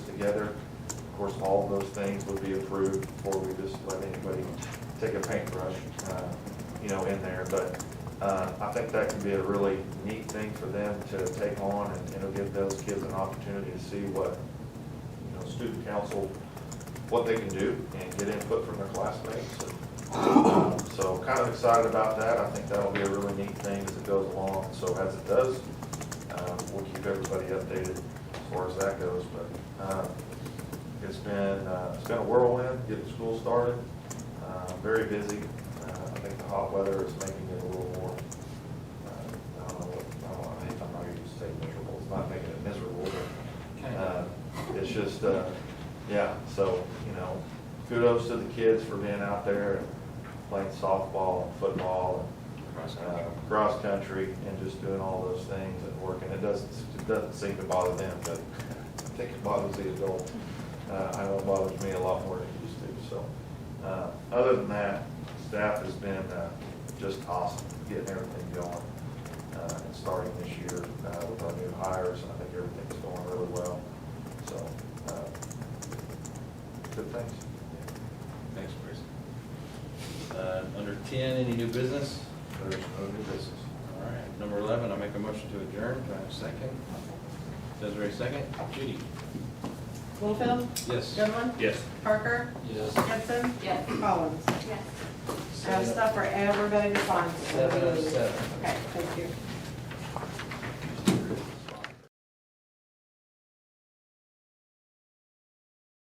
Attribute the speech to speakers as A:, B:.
A: course, all of those things would be approved before we just let anybody take a paintbrush, uh, you know, in there. But uh, I think that can be a really neat thing for them to take on, and it'll give those kids an opportunity to see what, you know, student council, what they can do, and get input from their classmates. And, um, So kind of excited about that. I think that'll be a really neat thing as it goes along. So as it does, um, we'll keep everybody updated as far as that goes, but, um, it's been, uh, it's been a whirlwind getting school started, uh, very busy. Uh, I think the hot weather is making it a little more, uh, I don't know, what- I don't know, I hate- I'm not gonna use say miserable, it's not making it miserable, but, uh, it's just, uh, yeah, so, you know, kudos to the kids for being out there and playing softball and football and, uh, cross country and just doing all those things and working. It doesn't, it doesn't seem to bother them, but I think it bothers the adult. Uh, I know it bothers me a lot more than it used to, so. Uh, other than that, staff has been, uh, just awesome getting everything going, uh, and starting this year, uh, with our new hires. I think everything's going really well, so, uh, good things.
B: Thanks, Chris. Uh, Under 10, any new business?
A: There's no new business.
B: All right. Number 11, I make a motion to adjourn. Do I have a second? Desiree, second. Judy?
C: Littlefield?
B: Yes.
C: Goodwin?
B: Yes.
C: Parker?
B: Yes.
C: Gibson? Yes. Collins? I have stuff for everybody to find.
B: Seven oh seven.
C: Okay, thank you.